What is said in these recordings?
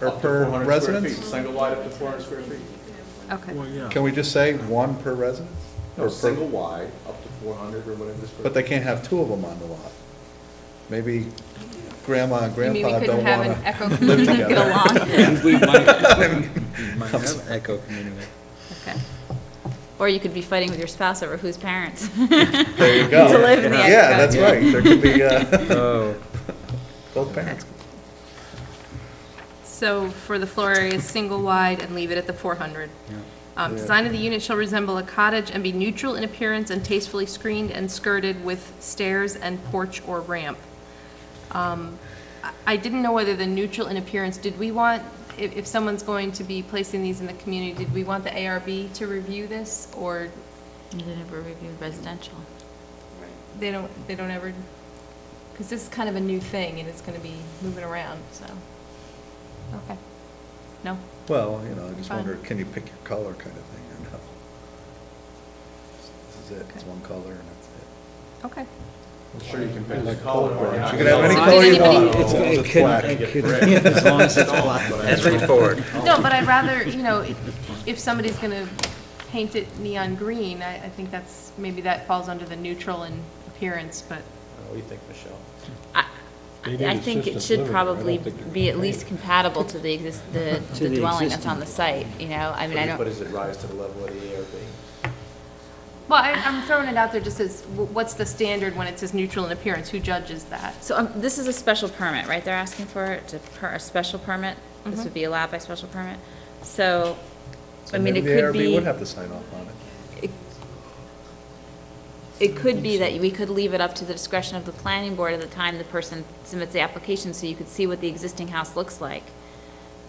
or Up to per 400 square feet, residence? Single wide up to four hundred square feet. Okay. Well, yeah. Can we just say one per residence? No, Or per- single wide, up to four hundred or whatever the square. But they can't have two of them on the lot. Maybe grandma and You mean we grandpa couldn't don't have an echo wanna live community get together. along? And we might, we might have echo community. Okay. Or you could be fighting with your spouse over whose parents. There you go. To live in the Yeah, echo. that's right, there could be, uh, Oh, both parents. So for the floor area, single wide and leave it at the 400. yeah. Um, Yeah. Design of the unit shall resemble a cottage and be neutral in appearance and tastefully screened and skirted with stairs and porch or ramp. Um, I I didn't know whether the neutral in appearance, did we want, if, if someone's going to be placing these in the community, did we want the ARB to review this, or You didn't ever review residential. they don't, they don't ever? Because this is kind of a new thing, and it's gonna be moving around, so, okay. No? Well, you know, I just Fine. wonder, can you pick your color kind of thing, or no? This is it, it's Okay. one color and that's it. Okay. I'm sure you can pick the color. or not. You can have any So did color you anybody- want. as long It's as It it's can- black. it can- As long as it's black. That's forward. No, but I'd rather, you know, if- if somebody's going to paint it neon green, I, I think that's, maybe that falls under the neutral in appearance, but, What do you think, Michelle? I, They need I think it assistance should living there. I don't probably think they're be at gonna least pay. compatible to the, exist- the To the the dwelling that's on existing. the site, you know? I mean, I But don't, does it rise to the level of the ARB? well, I, I'm throwing it out there just as, wh- what's the standard when it says neutral in appearance? Who judges that? so um, this is a special permit, right? They're asking for it, to per, a special permit? This would be allowed by special permit? So, So I mean, it maybe could The ARB be, would have to sign off on it. it- it could be that we could leave it up to the discretion of the planning board at the time the person submits the application, so you could see what the existing house looks like,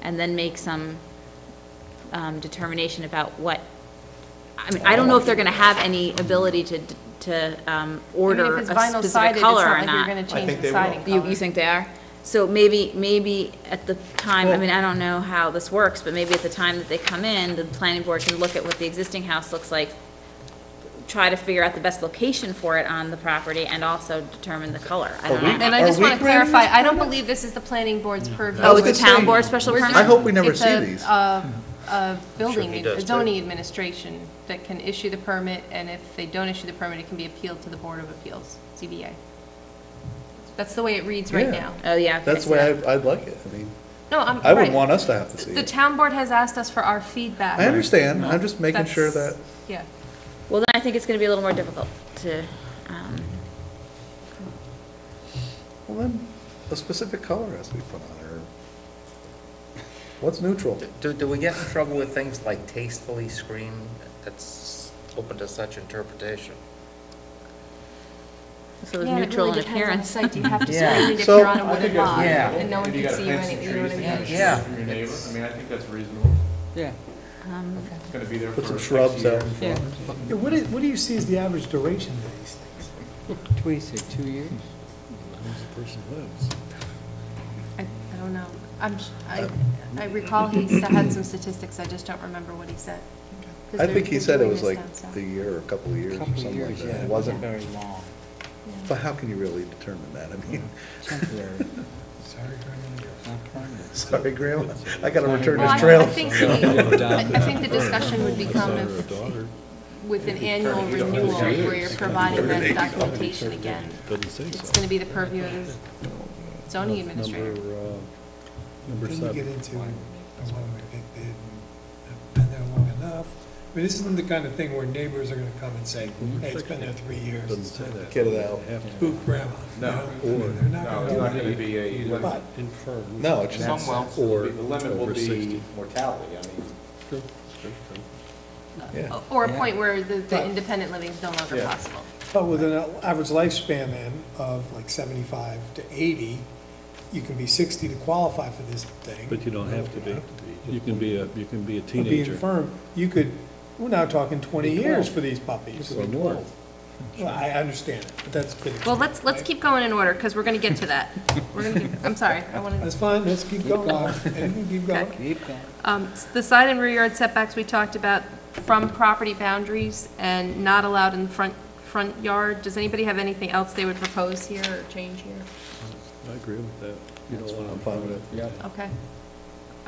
and then make some um, determination about what, I mean, I don't know if they're gonna have any ability to, to um, order a specific color or I mean, if it's vinyl sided, it's not like not. you're going to I change think the they will. siding You, you color. think they are? So maybe, maybe at the time, I Well- mean, I don't know how this works, but maybe at the time that they come in, the planning board can look at what the existing house looks like, try to figure out the best location for it on the property, and also determine the color. I don't know. And I Are just we want to granting clarify, I don't believe this is the planning board's purview. Oh, it's gonna a town say, board special permit? I hope we never It's see a- these. A, a building, he does, a zoning administration that can issue the permit, and if they don't issue the permit, it can be appealed to the Board of Appeals, CBA. That's the way it reads right Yeah. now. Oh, yeah. okay, That's I the way see that. I'd, I'd like it, I mean, No, I'm, I wouldn't right. want us to have to see The it. town board has asked us for our feedback. I understand, I'm just making sure That's- that, Yeah. Well, then I think it's gonna be a little more difficult to, um, well then, a specific color has to be put on it, or what's neutral? Do, do we get in trouble with things like tastefully screened? That's open to such interpretation. so it's neutral in appearance. You have to Yeah. screen it if So- you're on a I think wooden that's lot, Yeah. reasonable. and no one If you can got see you plants and any- you know trees what that I kinda mean? shade Yeah. From your neighbor, I mean, I think that's reasonable. Yeah. Um, It's gonna be there for. Put some X shrubs out years. in front. Yeah, What do, what do you see as the average duration of these things? What do you say, two years? Where's the person lives? I, I don't know. I'm, sh- Uh, I, I recall he s- had some statistics, I just don't remember what he said. 'Cause I they're- think he they're said it doing was this like down south. the year or a couple of years or Couple of something like years, yeah. that. It It wasn't, wasn't very long, but how can you really determine that? I mean, temporary, Sorry, Grandma. not permanent. sorry, Grandma, I gotta return Well, I- this trail. I think the, I I think the discussion would become if, with an annual renewal, where you're providing that documentation again. Doesn't say It's so. gonna be the purview of the zoning administrator. Number, uh, number Then you get seven. into, I want to get bid, have been there long enough. I mean, this isn't the kind of thing where neighbors are going to come and say, hey, it's been there three years. Doesn't say that. Get it out. Have to Spook grandma. you No. know? I mean, They're not No, going it's to do not that. gonna be a either limit. Infer. No, it's Some will. just, The Or limit will over be 60. mortality, I mean. True, true, true. yeah. Or a Yeah. point where the, the independent living is no longer Yeah. possible. But with an average lifespan then of like 75 to 80, you can be 60 to qualify for this thing. But you don't have to be. You can be a, you can be a But Being teenager. firm, you could, we're now talking 20 years for these puppies. Or more. Well, I understand it, but that's good. Well, let's, let's keep going in order, because we're gonna get to that. We're gonna, get- I'm sorry, I wanna. That's fine, let's keep going, Anything, keep going. Keep going. Um, s- The side and rear yard setbacks, we talked about from property boundaries and not allowed in front, front yard. Does anybody have anything else they would propose here or change here? I agree with that. You don't I'm want fine with it. Yeah. Okay.